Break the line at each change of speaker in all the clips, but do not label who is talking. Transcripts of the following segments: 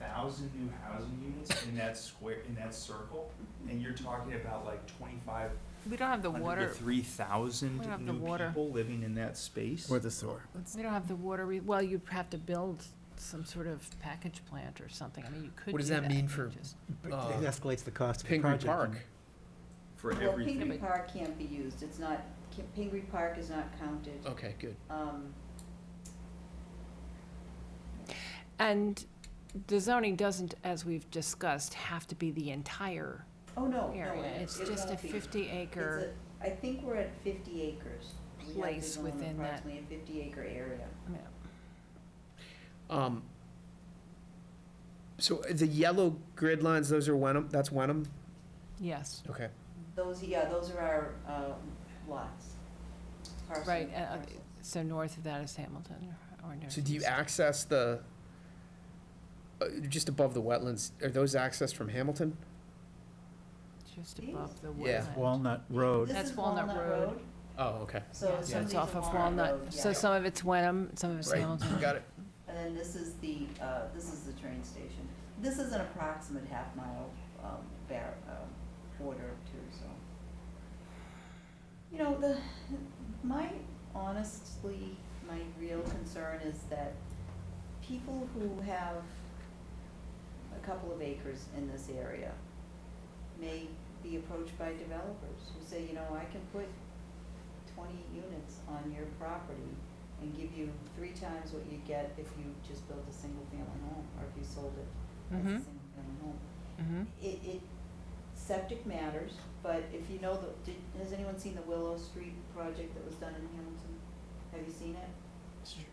thousand new housing units in that square, in that circle, and you're talking about like twenty-five
We don't have the
hundred
water,
to three thousand
We don't have the
new
water.
people living in that space?
Or the sewer.
Let's-
We don't have the water, re- well, you'd have to build some sort of package plant or something, I mean, you could do that.
What does that mean for,
just-
uh,
It escalates the cost of the
Pingree
project.
Park?
For
Well,
everything.
Pingree Park can't be used, it's not, Ki- Pingree Park is not counted.
Oh.
Okay, good.
Um,
And the zoning doesn't, as we've discussed, have to be the entire
oh, no, no.
area,
it-
it's
it
just a
won't be.
fifty
It's
acre,
a- I think we're at fifty acres. We have to
place
zone
within that.
Approximately a fifty acre area.
yeah.
Um, so the yellow grid lines, those are Wenham, that's Wenham?
yes,
Okay.
Those, yeah, those are our, um, lots. parcel-
Right, and, uh,
parcels.
so north of that is Hamilton or north.
So do you access the, uh, just above the wetlands, are those accessed from Hamilton?
Just above the
Yeah.
woodland.
Walnut Road.
This
That's
is
Walnut Road.
Oh, okay.
So some
Yeah,
of
So it's
these
off
are
of
Walnut Road,
Walnut, so
yeah.
some of it's Wenham, some of it's
Right.
Hamilton.
Got it.
And then this is the, uh, this is the train station. This is an approximate half mile, um, bar, um, border too, so. You know, the, my, honestly, my real concern is that people who have a couple of acres in this area may be approached by developers who say, you know, I can put twenty units on your property and give you three times what you get if you just built a single-family home, or if you sold it as a
Mhm.
single-family home.
Mhm.
It, it, septic matters, but if you know the, did, has anyone seen the Willow Street project that was done in Hamilton? Have you seen it?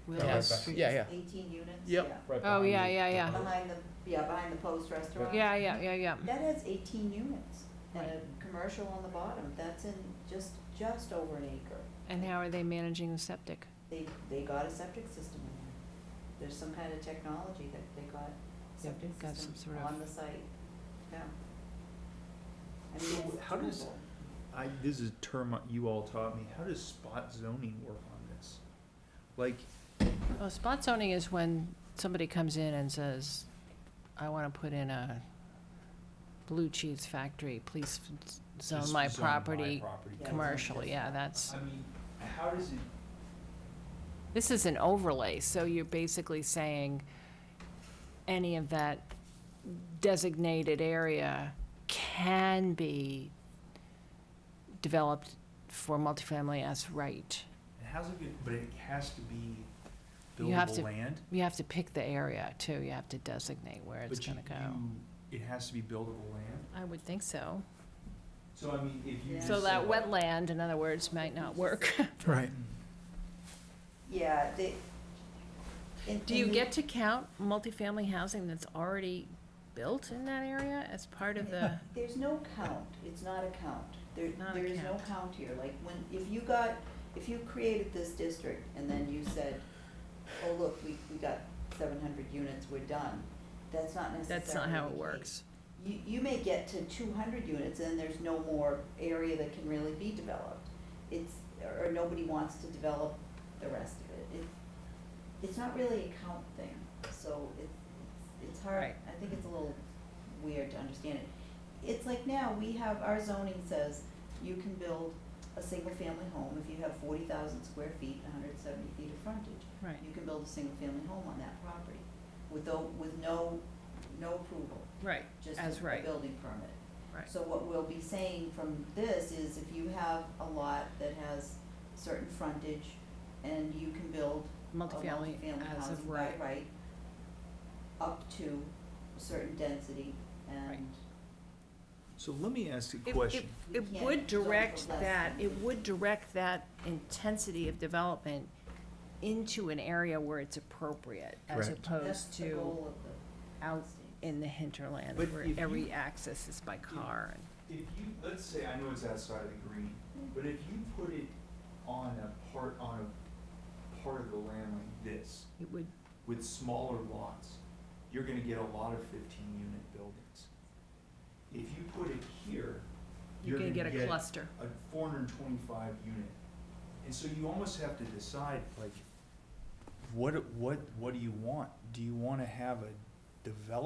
Willow
Yeah.
Street.
Yeah, yeah.
Eighteen units?
Yep.
Yeah.
Oh, yeah, yeah, yeah,
Behind the, yeah, behind the Post Restaurant.
yeah, yeah, yeah, yeah.
That has eighteen units, and
Right.
a commercial on the bottom, that's in just, just over an acre.
And how are they managing the septic?
they, they got a septic system in there. There's some kind of technology that they got septic
got some
system
sort of-
on the site, yeah. I
So
mean, it's
how does-
doable.
I, this is a term you all taught me, how does spot zoning work on this? Like,
Well, spot zoning is when somebody comes in and says, I want to put in a blue cheese factory, please f- zone
just
my
zone my
property
property.
Yeah.
commercial, yeah, that's,
I mean, how does it
this is an overlay, so you're basically saying any of that designated area can be developed for multifamily as right.
And how's it, get- but it has to be
You have
buildable
to-
land?
You have to pick the area too, you have to designate where it's
but you-
going to go.
you- It has to be buildable land?
I would think so.
So I mean, if you
Yeah.
just
So that
said-
wetland, in other words, might not work.
Right.
Yeah, they. and-
Do you
and the-
get to count multifamily housing that's already built in that area as part of the?
There's no count, it's not a count, there,
Not a
there is no
count.
count here, like, when, if you got, if you created this district and then you said, oh, look, we, we got seven hundred units, we're done, that's not necessarily
That's not how it
the case.
works.
you, you may get to two hundred units and there's no more area that can really be developed. It's, or nobody wants to develop the rest of it. It, it's not really a count thing, so it, it's, it's hard,
Right.
I think it's a little weird to understand it. It's like now, we have, our zoning says you can build a single-family home if you have forty thousand square feet, hundred and seventy feet of frontage
Right.
you can build a single-family home on that property with no, with no, no approval,
Right,
just
As
a- a
right.
building permit.
right.
So what we'll be saying from this is if you have a lot that has certain frontage and you can build a
Multifamily
multifamily
as
housing
of
by
right.
right, up to a certain density and,
So let me ask you a
It-
question.
It it
We can't
would
zone for
direct
less
that,
than-
it would direct that intensity of development into an area where it's appropriate as
Correct.
that's
opposed
the
to
goal of the.
out in the hinterland
But
where
if you-
every access is by car and.
If you, let's say, I know it's outside of the green, but if you put it on a part, on a part of the land like this,
It would,
with smaller lots, you're gonna get a lot of fifteen unit buildings. If you put it here,
you're
you're
gonna get
cluster.
a cluster.
a four hundred and twenty-five unit. And so you almost have to decide, like, what, what, what do you want? Do you wanna have a development